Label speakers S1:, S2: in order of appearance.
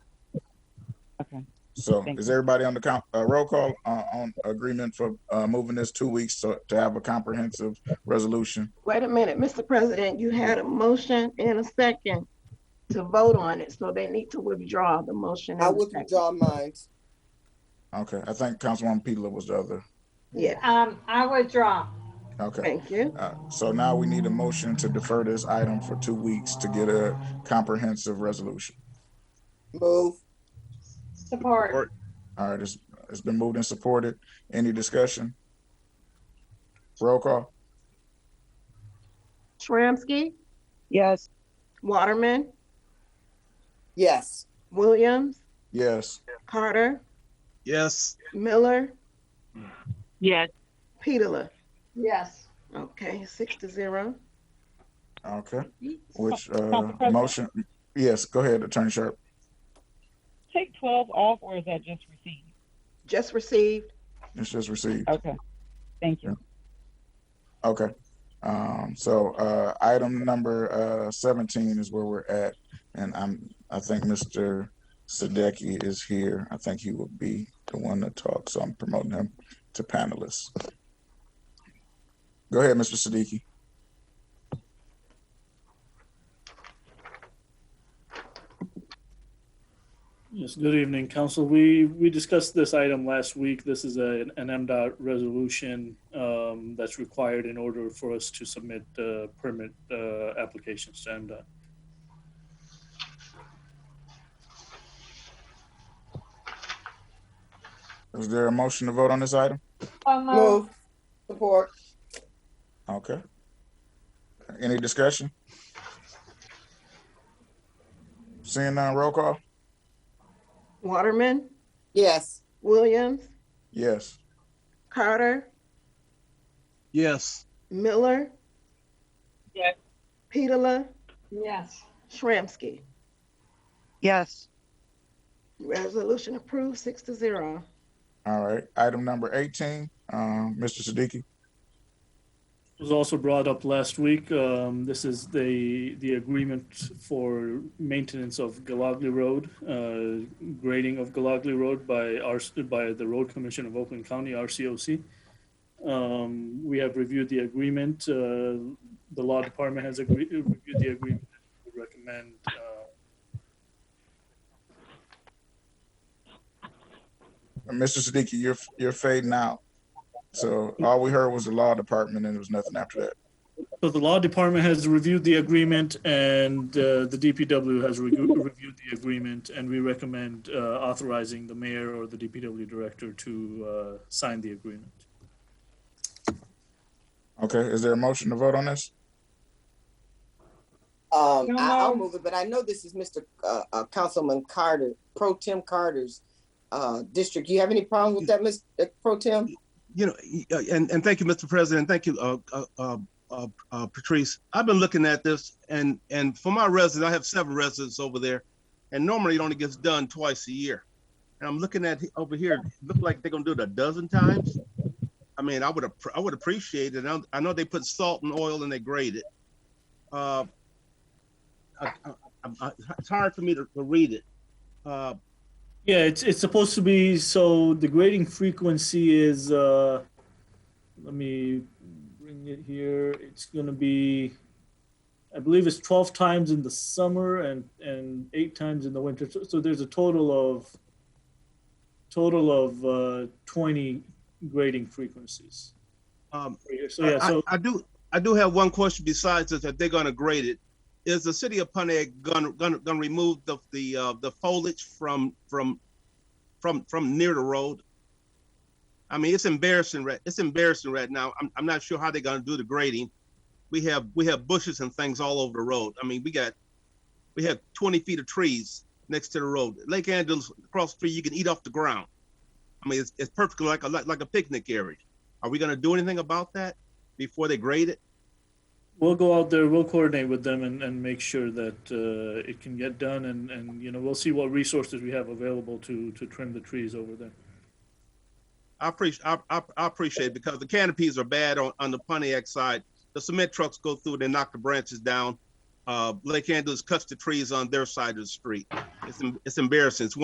S1: So
S2: Thank
S1: is everybody on the count, uh, roll call, uh, on agreement for, uh, moving this two weeks to, to have a comprehensive resolution?
S3: Wait a minute, Mr. President, you had a motion and a second to vote on it, so they need to withdraw the motion. and
S4: I
S3: the
S4: would
S3: second.
S4: withdraw mine.
S1: Okay, I think Councilwoman Pedala was the other.
S3: Yeah,
S5: Um, I withdraw.
S1: Okay,
S3: thank you.
S1: uh, so now we need a motion to defer this item for two weeks to get a comprehensive resolution.
S4: Move.
S5: Support.
S1: All right, it's, it's been moved and supported. Any discussion? Roll call?
S3: Shramsky,
S2: yes,
S3: Waterman,
S4: Yes.
S3: Williams,
S1: Yes.
S3: Carter,
S6: Yes.
S3: Miller,
S2: yes,
S3: Petula.
S5: Yes.
S3: Okay, six to zero.
S1: Okay, which, uh, motion, yes, go ahead, Attorney Sharp.
S7: take twelve off, or is that just received?
S3: Just received.
S1: It's just received.
S7: Okay, thank you.
S1: Okay. Um, so, uh, item number, uh, seventeen is where we're at. And I'm, I think Mr. Sadecki is here. I think he will be the one to talk, so I'm promoting him to panelists. Go ahead, Mr. Siddiqui.
S8: Yes, good evening, council. We, we discussed this item last week. This is a, an MDOT resolution um, that's required in order for us to submit uh, permit uh, applications to MDOT.
S1: Is there a motion to vote on this item?
S5: So moved.
S4: Move. Support.
S1: Okay. Any discussion? Seeing none, roll call?
S3: Waterman,
S4: Yes.
S3: Williams,
S1: Yes.
S3: Carter,
S6: Yes.
S3: Miller.
S7: Yes.
S3: Petula,
S5: Yes.
S3: Shramsky.
S2: yes,
S3: Resolution approved, six to zero.
S1: All right, item number eighteen, um, Mr. Siddiqui.
S8: It was also brought up last week. Um, This is the, the agreement for maintenance of Galagly Road, uh, grading of Galagly Road by our, by the Road Commission of Oakland County, RCOC. Um, We have reviewed the agreement. uh, The law department has agreed, reviewed the agreement. We Recommend, uh,
S1: Mr. Siddiqui, you're, you're fading out. So all we heard was the law department and there was nothing after that.
S8: So the law department has reviewed the agreement and uh, the DPW has regu- reviewed the agreement and we recommend uh, authorizing the mayor or the DPW director to uh, sign the agreement.
S1: Okay, is there a motion to vote on this?
S4: Um,
S5: No
S4: I, I'll
S5: move.
S4: move it, but I know this is Mr. Uh, uh, Councilman Carter, Pro Tim Carter's uh, district. You have any problem with that, Ms. uh, Pro Tim?
S6: You know, y- uh, and, and thank you, Mr. President. Thank you, uh, uh, uh, uh, uh, Patrice. I've been looking at this and, and for my residents, I have several residents over there. And normally it only gets done twice a year. And I'm looking at he- over here, look like they're gonna do it a dozen times. I mean, I would, appr- I would appreciate it. I, I know they put salt and oil and they grade it. Uh, I, I, I, it's hard for me to, to read it. Uh,
S8: Yeah, it's, it's supposed to be, so the grading frequency is, uh, let me bring it here, it's gonna be, I believe it's twelve times in the summer and, and eight times in the winter, so, so there's a total of, total of, uh, twenty grading frequencies.
S6: um,
S8: per year. So, yeah,
S6: I-
S8: so,
S6: I, I do. I do have one question besides this that they're going to grade it. Is the city of Punta going to going to remove the the uh, the foliage from from from from near the road? I mean, it's embarrassing. Right, it's embarrassing right now. I'm I'm not sure how they're going to do the grading. We have we have bushes and things all over the road. I mean, we got we have 20 feet of trees next to the road. Lake Angeles across the street, you can eat off the ground. I mean, it's, it's perfectly like a like like a picnic area. Are we going to do anything about that? before they grade it.
S8: we'll go out there, we'll coordinate with them and, and make sure that, uh, it can get done and, and, you know, we'll see what resources we have available to, to trim the trees over there.
S6: I appreciate I, I, I appreciate it because the canopies are bad on, on the Pontiac side. The cement trucks go through and they knock the branches down. Uh, what they can't do is cut the trees on their side of the street. It's em- it's embarrassing. It's